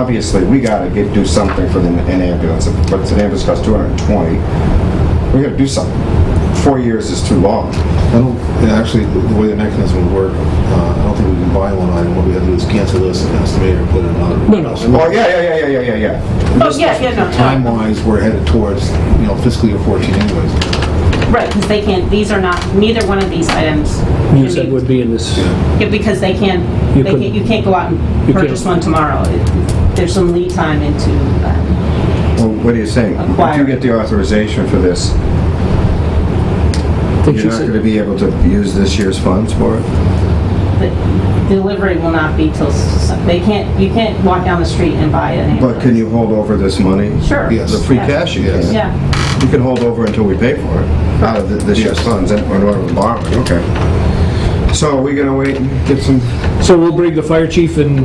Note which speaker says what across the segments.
Speaker 1: obviously, we gotta get, do something for the, an ambulance, but an ambulance costs two hundred and twenty. We gotta do something. Four years is too long.
Speaker 2: I don't, yeah, actually, the way the mechanism would work, uh, I don't think we can buy one item. What we have to do is cancel this and estimate or put another.
Speaker 3: No, no.
Speaker 1: Oh, yeah, yeah, yeah, yeah, yeah, yeah, yeah.
Speaker 4: Oh, yeah, yeah, no, no.
Speaker 2: Time-wise, we're headed towards, you know, fiscal year 14 anyways.
Speaker 4: Right, because they can't, these are not, neither one of these items. can
Speaker 3: You said
Speaker 4: be-
Speaker 3: would be in this,
Speaker 4: Yeah, Because they can't,
Speaker 3: You
Speaker 4: they
Speaker 3: couldn't-
Speaker 4: can't, you can't go out and
Speaker 3: You can't.
Speaker 4: purchase one tomorrow. It- There's some lead time into um, that.
Speaker 1: Well, what are you saying? If you
Speaker 4: Acquire.
Speaker 1: get the authorization for this,
Speaker 3: I think
Speaker 1: you're
Speaker 3: she
Speaker 1: not
Speaker 3: said-
Speaker 1: gonna be able to use this year's funds for it?
Speaker 4: The Delivery will not be till, s- they can't, you can't walk down the street and buy an ambulance.
Speaker 1: But can you hold over this money?
Speaker 4: Sure.
Speaker 2: Yes.
Speaker 1: The free cash you get?
Speaker 4: Yeah,
Speaker 1: You can hold over until we pay for it, out of th- this year's funds, and- or whatever, borrowing, okay. So are we gonna wait and get some,
Speaker 3: So we'll bring the fire chief and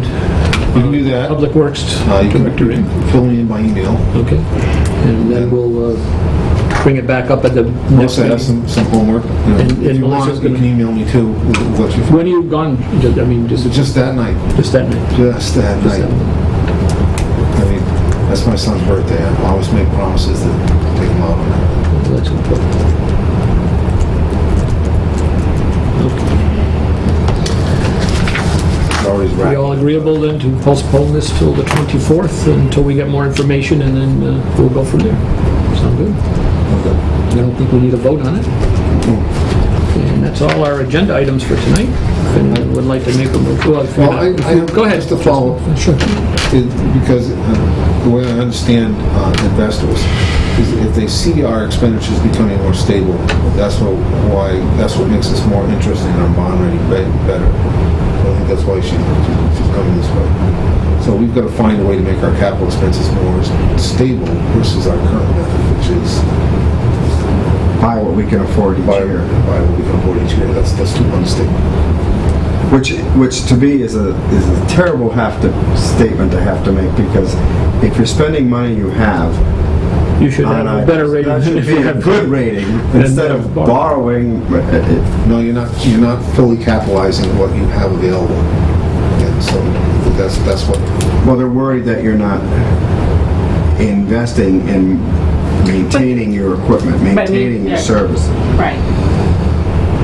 Speaker 2: You can do that.
Speaker 3: public works
Speaker 2: Uh, You
Speaker 3: director in.
Speaker 2: can fill me in by email.
Speaker 3: Okay. And then we'll uh, bring it back up at the next
Speaker 2: Also, I have
Speaker 3: meeting.
Speaker 2: some, some homework. you know.
Speaker 3: And- and
Speaker 2: If you want,
Speaker 3: Melissa's
Speaker 2: you can
Speaker 3: gonna-
Speaker 2: email me too, with what you,
Speaker 3: When are you gone? Ju- I mean, just,
Speaker 2: just that night,
Speaker 3: just that night?
Speaker 2: just that
Speaker 3: Just
Speaker 2: night.
Speaker 3: that night.
Speaker 2: I mean, that's my son's birthday. I always make promises to take him out on that.
Speaker 3: Well, that's important. Okay.
Speaker 2: He's always
Speaker 3: Are
Speaker 2: right.
Speaker 3: we all agreeable then to postpone this till the 24th, until we get more information, and then uh, we'll go from there? Sound good? I don't think we need a vote on it. And that's all our agenda items for tonight. If anyone would like to make a move, well, if you're
Speaker 2: Well, I-
Speaker 3: not-
Speaker 2: I-
Speaker 3: go ahead.
Speaker 2: just to follow-
Speaker 3: Sure.
Speaker 2: It- Because uh, the way I understand uh, investors is if they see our expenditures becoming more stable, that's what, why, that's what makes us more interesting in our bond rating be- better. So I think that's why she, she's coming this way. So we've got to find a way to make our capital expenses more stable versus our current method, which is
Speaker 1: buy what we can afford each
Speaker 2: buy,
Speaker 1: year?
Speaker 2: buy what we can afford each year. That's, that's too unstable.
Speaker 1: Which, which to me is a, is a terrible have to, statement to have to make, because if you're spending money you have
Speaker 3: You should
Speaker 1: on
Speaker 3: have a
Speaker 1: items,
Speaker 3: better rating.
Speaker 1: that should
Speaker 3: if
Speaker 1: be
Speaker 3: you
Speaker 1: a
Speaker 3: have-
Speaker 1: good rating,
Speaker 3: than
Speaker 1: instead of
Speaker 3: borrow.
Speaker 1: borrowing, uh, uh,
Speaker 2: No, you're not, you're not fully capitalizing what you have available. And so that's, that's what,
Speaker 1: well, they're worried that you're not investing in maintaining your equipment, maintaining your
Speaker 4: yeah.
Speaker 1: services.
Speaker 4: right.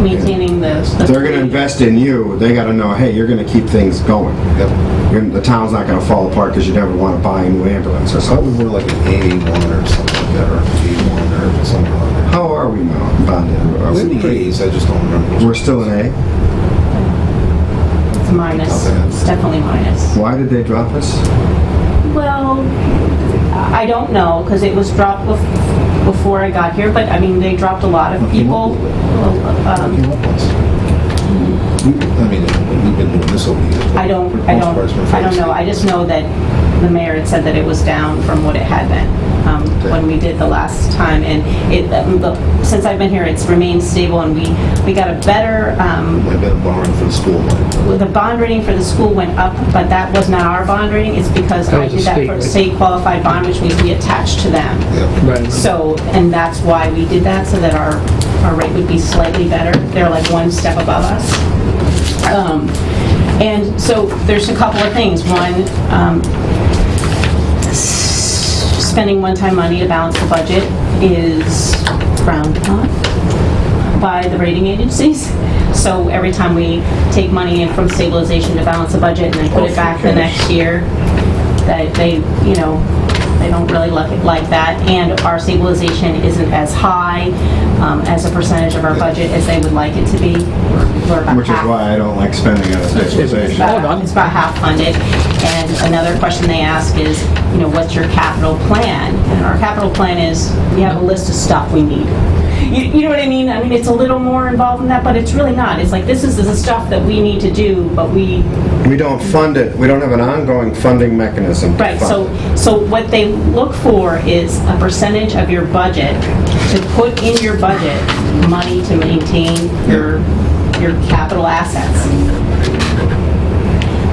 Speaker 4: Maintaining the. the-
Speaker 1: They're gonna invest in you, they gotta know, hey, you're gonna keep things going.
Speaker 2: yep.
Speaker 1: You're- The town's not gonna fall apart because you never wanna buy a new ambulance or something.
Speaker 2: Probably more like an A1 or something like that, or an A1 or something like that.
Speaker 1: How are we now, bonded? Are
Speaker 2: It's in the
Speaker 1: we-
Speaker 2: A's, I just don't remember.
Speaker 1: We're still an A?
Speaker 4: It's minus,
Speaker 2: Okay.
Speaker 4: it's definitely minus.
Speaker 1: Why did they drop us?
Speaker 4: Well, I don't know, because it was dropped bef- before I got here, but I mean, they dropped a lot of people. Um,
Speaker 2: Came up once. I mean, we've been doing this over the years. but
Speaker 4: I don't,
Speaker 2: for the
Speaker 4: I
Speaker 2: most part, it's been
Speaker 4: don't, I
Speaker 2: fairly
Speaker 4: don't know. I just know that the mayor had said that it was down from what it had been um, when we did the last time. And it, um, the- since I've been here, it's remained stable and we, we got a better, um,
Speaker 2: stable. I've been borrowing for the school money.
Speaker 4: the bond rating for the school went up, but that was not our bond rating. It's because
Speaker 3: That
Speaker 4: I
Speaker 3: was a
Speaker 4: did that
Speaker 3: state
Speaker 4: for
Speaker 3: rate.
Speaker 4: state qualified bond, which means we attached to them.
Speaker 2: Yeah.
Speaker 3: Right.
Speaker 4: So, and that's why we did that, so that our, our rate would be slightly better. They're like one step above us. Um, And so there's a couple of things. One, um, s- spending one-time money to balance the budget is frowned upon by the rating agencies. So every time we take money in from stabilization to balance the budget and then put it back the next year, that they, you know, they don't really look at like that. And our stabilization isn't as high um, as a percentage of our budget as they would like it to be. We're about
Speaker 1: Which is
Speaker 4: half.
Speaker 1: why I don't like spending out of
Speaker 4: It's
Speaker 1: stabilization.
Speaker 3: Hold on.
Speaker 4: about, it's about half funded. And another question they ask is, you know, what's your capital plan? And our capital plan is, we have a list of stuff we need. You, you know what I mean? I mean, it's a little more involved than that, but it's really not. It's like, this is the stuff that we need to do, but we
Speaker 1: We don't fund it, we don't have an ongoing funding mechanism. to
Speaker 4: Right,
Speaker 1: fund
Speaker 4: so,
Speaker 1: it.
Speaker 4: so what they look for is a percentage of your budget to put in your budget money to maintain your, your capital assets.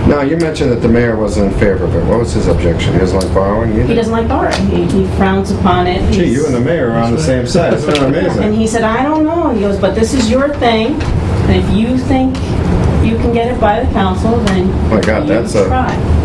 Speaker 1: Now, you mentioned that the mayor wasn't in favor of it. What was his objection? He doesn't like borrowing? You
Speaker 4: He
Speaker 1: did?
Speaker 4: doesn't like borrowing, He- he frowns upon it.
Speaker 1: Gee, you and the mayor are on the same side. It's kind of
Speaker 4: And
Speaker 1: amazing.
Speaker 4: he said, I don't know, he goes, but this is your thing, and if you think you can get it by the council, then
Speaker 1: My God,
Speaker 4: you
Speaker 1: that's a-
Speaker 4: try."